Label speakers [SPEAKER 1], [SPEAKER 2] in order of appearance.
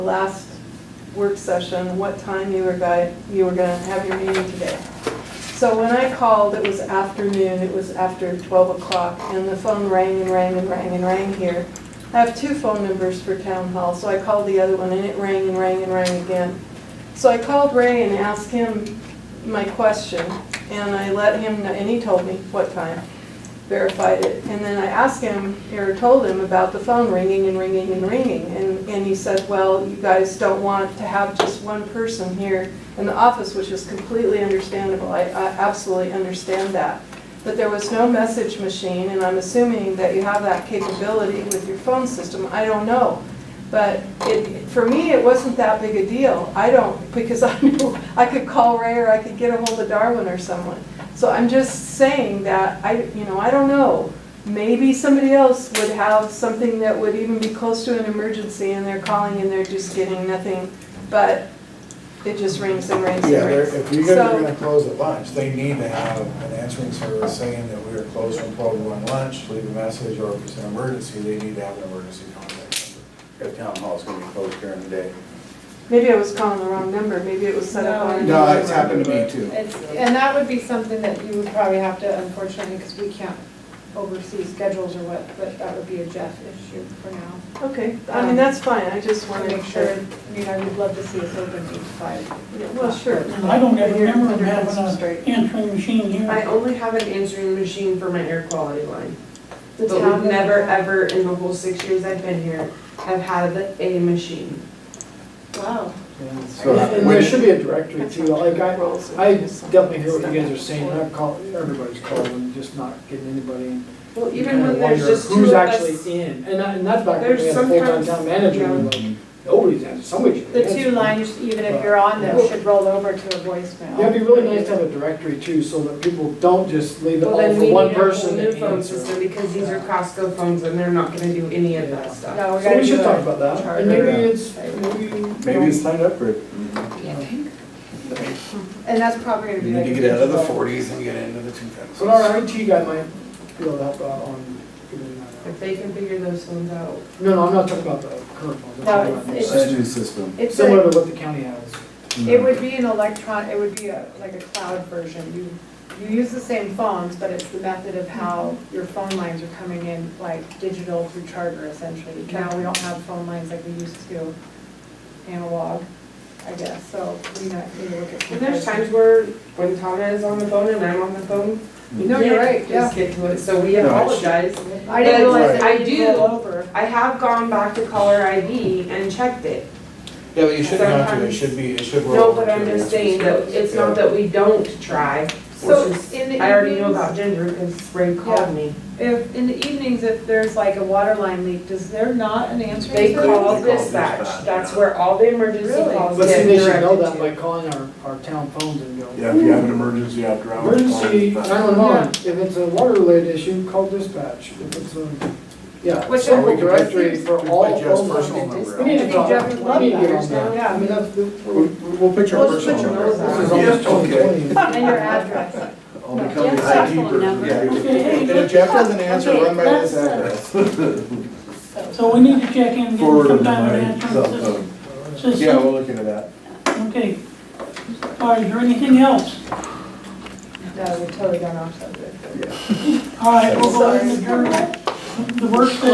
[SPEAKER 1] the last work session, what time you were guy, you were gonna have your meeting today. So when I called, it was afternoon, it was after twelve o'clock, and the phone rang and rang and rang and rang here. I have two phone numbers for town hall, so I called the other one, and it rang and rang and rang again. So I called Ray and asked him my question, and I let him, kn- and he told me what time, verified it. And then I asked him, or told him about the phone ringing and ringing and ringing. And, and he said, well, you guys don't want to have just one person here in the office, which is completely understandable. I, I absolutely understand that. But there was no message machine, and I'm assuming that you have that capability with your phone system. I don't know. But it, for me, it wasn't that big a deal. I don't, because I knew I could call Ray or I could get a hold of Darwin or someone. So I'm just saying that, I, you know, I don't know. Maybe somebody else would have something that would even be close to an emergency and they're calling and they're just getting nothing. But it just rings and rings
[SPEAKER 2] Yeah,
[SPEAKER 1] and
[SPEAKER 2] they're-
[SPEAKER 1] rings.
[SPEAKER 2] if you're gonna, you're
[SPEAKER 1] So-
[SPEAKER 2] gonna close at lunch, they need to have an answering service saying that we are closed from twelve to one lunch, leave a message, or if it's an emergency, they need to have an emergency contact number. If town hall's gonna be closed during the day.
[SPEAKER 1] Maybe I was calling the wrong number, maybe it was set up on.
[SPEAKER 2] No, it's happened to me too.
[SPEAKER 3] It's- And that would be something that you would probably have to, unfortunately, because we can't oversee schedules or what, but that would be a Jeff issue for now.
[SPEAKER 1] Okay, I mean, that's fine, I just
[SPEAKER 3] Want
[SPEAKER 1] wanted
[SPEAKER 3] to
[SPEAKER 1] to.
[SPEAKER 3] make sure, I mean, I would love to see us open to five.
[SPEAKER 1] Yeah, Well, sure.
[SPEAKER 4] I don't ever
[SPEAKER 1] You're
[SPEAKER 4] remember
[SPEAKER 1] under
[SPEAKER 4] having
[SPEAKER 1] Hudson Street.
[SPEAKER 4] an answering machine
[SPEAKER 5] I
[SPEAKER 4] here.
[SPEAKER 5] only have an answering machine for my air quality line.
[SPEAKER 3] The
[SPEAKER 5] But
[SPEAKER 3] town
[SPEAKER 5] we've never,
[SPEAKER 3] doesn't have-
[SPEAKER 5] ever, in the whole six years I've been here, have had a machine.
[SPEAKER 3] Wow.
[SPEAKER 2] So,
[SPEAKER 6] And there should be a directory too, like I,
[SPEAKER 1] Rolls.
[SPEAKER 6] I definitely hear what you guys are saying, I'm calling, everybody's calling, just not getting anybody. in.
[SPEAKER 5] Well,
[SPEAKER 6] You
[SPEAKER 5] even
[SPEAKER 6] kinda
[SPEAKER 5] when there's
[SPEAKER 6] wonder
[SPEAKER 5] just two
[SPEAKER 6] Who's
[SPEAKER 5] of us.
[SPEAKER 6] actually in, and that- and that's back when we
[SPEAKER 5] There's
[SPEAKER 6] had a full-time
[SPEAKER 5] sometimes-
[SPEAKER 6] town manager, and like,
[SPEAKER 2] Mm-hmm.
[SPEAKER 6] nobody's answering, somebody's.
[SPEAKER 3] The two lines, even if you're on them, should roll over to a voicemail.
[SPEAKER 6] Yeah, it'd be really nice to have a directory too, so that people don't just leave it
[SPEAKER 5] Well,
[SPEAKER 6] all
[SPEAKER 5] then we
[SPEAKER 6] for
[SPEAKER 5] need
[SPEAKER 6] one
[SPEAKER 5] a whole
[SPEAKER 6] person
[SPEAKER 5] new
[SPEAKER 6] to
[SPEAKER 5] phone
[SPEAKER 6] answer.
[SPEAKER 5] system because these are Costco phones and they're not gonna do any of that stuff.
[SPEAKER 3] No, we
[SPEAKER 6] So
[SPEAKER 3] gotta
[SPEAKER 6] we
[SPEAKER 3] do
[SPEAKER 6] should talk
[SPEAKER 3] a
[SPEAKER 6] about that,
[SPEAKER 3] charter.
[SPEAKER 6] and maybe it's, maybe.
[SPEAKER 2] Maybe it's time to upgrade.
[SPEAKER 3] And that's probably gonna
[SPEAKER 7] We
[SPEAKER 3] be
[SPEAKER 7] need
[SPEAKER 3] like.
[SPEAKER 7] to
[SPEAKER 3] a
[SPEAKER 7] get out of the
[SPEAKER 3] digital-
[SPEAKER 7] forties and get into the two thousands.
[SPEAKER 6] But our IT guy might be able to help out on figuring that out.
[SPEAKER 5] If they can figure those phones out.
[SPEAKER 6] No, no, I'm not talking about the current one. I'm
[SPEAKER 3] No,
[SPEAKER 6] talking about
[SPEAKER 3] it's-
[SPEAKER 6] this.
[SPEAKER 2] That's a new system.
[SPEAKER 3] It's a-
[SPEAKER 6] Similar to what the county has.
[SPEAKER 3] It would be an electron, it would be a, like a cloud version. You, you use the same phones, but it's the method of how your phone lines are coming in, like digital through charter essentially. Now, we don't have phone lines like we used to, analog, I guess, so we not, need to look at.
[SPEAKER 5] And there's times where, when Tana is on the phone and I'm on the phone. we
[SPEAKER 3] No, you're
[SPEAKER 5] can't
[SPEAKER 3] right,
[SPEAKER 5] Just get to it, so we
[SPEAKER 2] No, I-
[SPEAKER 5] apologize.
[SPEAKER 3] I didn't realize
[SPEAKER 5] I
[SPEAKER 3] that we
[SPEAKER 5] do.
[SPEAKER 3] could roll over.
[SPEAKER 5] I have gone back to caller ID and checked it.
[SPEAKER 2] Yeah, but you shouldn't have to, it should be, it should roll.
[SPEAKER 5] No, but
[SPEAKER 2] to
[SPEAKER 5] I'm
[SPEAKER 2] the
[SPEAKER 5] just saying that
[SPEAKER 2] answering
[SPEAKER 5] it's not
[SPEAKER 2] service.
[SPEAKER 5] that we don't try,
[SPEAKER 3] So,
[SPEAKER 5] which is,
[SPEAKER 3] in the
[SPEAKER 5] I already know
[SPEAKER 3] evenings-
[SPEAKER 5] about Ginger because Ray
[SPEAKER 3] Yeah.
[SPEAKER 5] called me.
[SPEAKER 3] If, in the evenings, if there's like a water line leak, does there not an answering
[SPEAKER 5] They
[SPEAKER 3] service?
[SPEAKER 5] call
[SPEAKER 7] They call
[SPEAKER 5] dispatch,
[SPEAKER 7] dispatch,
[SPEAKER 5] that's
[SPEAKER 7] yeah.
[SPEAKER 5] where all the emergency
[SPEAKER 3] Really?
[SPEAKER 5] calls
[SPEAKER 6] But see,
[SPEAKER 5] get
[SPEAKER 6] they should know that
[SPEAKER 5] directed
[SPEAKER 6] by
[SPEAKER 5] to.
[SPEAKER 6] calling our, our town phones and go.
[SPEAKER 2] Yeah, if you have an emergency after hours. call
[SPEAKER 6] Emergency
[SPEAKER 2] dispatch.
[SPEAKER 6] nine-one-one, if it's a water related issue, call dispatch, if it's a, yeah.
[SPEAKER 3] Which
[SPEAKER 6] simple
[SPEAKER 3] I think-
[SPEAKER 6] Directory for
[SPEAKER 7] We
[SPEAKER 6] all
[SPEAKER 7] put Jeff's
[SPEAKER 6] phone
[SPEAKER 7] personal
[SPEAKER 6] lines.
[SPEAKER 7] number
[SPEAKER 6] We need
[SPEAKER 3] I
[SPEAKER 6] to
[SPEAKER 3] think
[SPEAKER 6] talk,
[SPEAKER 3] Jeff
[SPEAKER 6] we
[SPEAKER 3] would love
[SPEAKER 6] need to get on
[SPEAKER 3] that.
[SPEAKER 6] that, I mean, that's, the-
[SPEAKER 2] We'll, we'll put your
[SPEAKER 5] Well, just put
[SPEAKER 2] personal
[SPEAKER 5] your
[SPEAKER 2] number.
[SPEAKER 5] nose out.
[SPEAKER 6] this is
[SPEAKER 2] Yeah.
[SPEAKER 6] almost twenty twenty.
[SPEAKER 3] And your address.
[SPEAKER 2] I'll become the
[SPEAKER 8] Jeff's
[SPEAKER 2] ID
[SPEAKER 8] cell phone
[SPEAKER 2] person.
[SPEAKER 8] number.
[SPEAKER 2] Yeah. And if Jeff doesn't answer, run by this
[SPEAKER 5] uh,
[SPEAKER 2] address.
[SPEAKER 4] So we need to check in, and get
[SPEAKER 2] Forward
[SPEAKER 4] some
[SPEAKER 2] of
[SPEAKER 4] kind of
[SPEAKER 2] my cell
[SPEAKER 4] answering
[SPEAKER 2] phone.
[SPEAKER 4] sys-
[SPEAKER 2] Yeah,
[SPEAKER 4] system.
[SPEAKER 2] we'll look into that.
[SPEAKER 4] Okay. All right, is there anything else?
[SPEAKER 3] No, we totally gone off subject.
[SPEAKER 4] All right, we'll go ahead and adjourn the work session.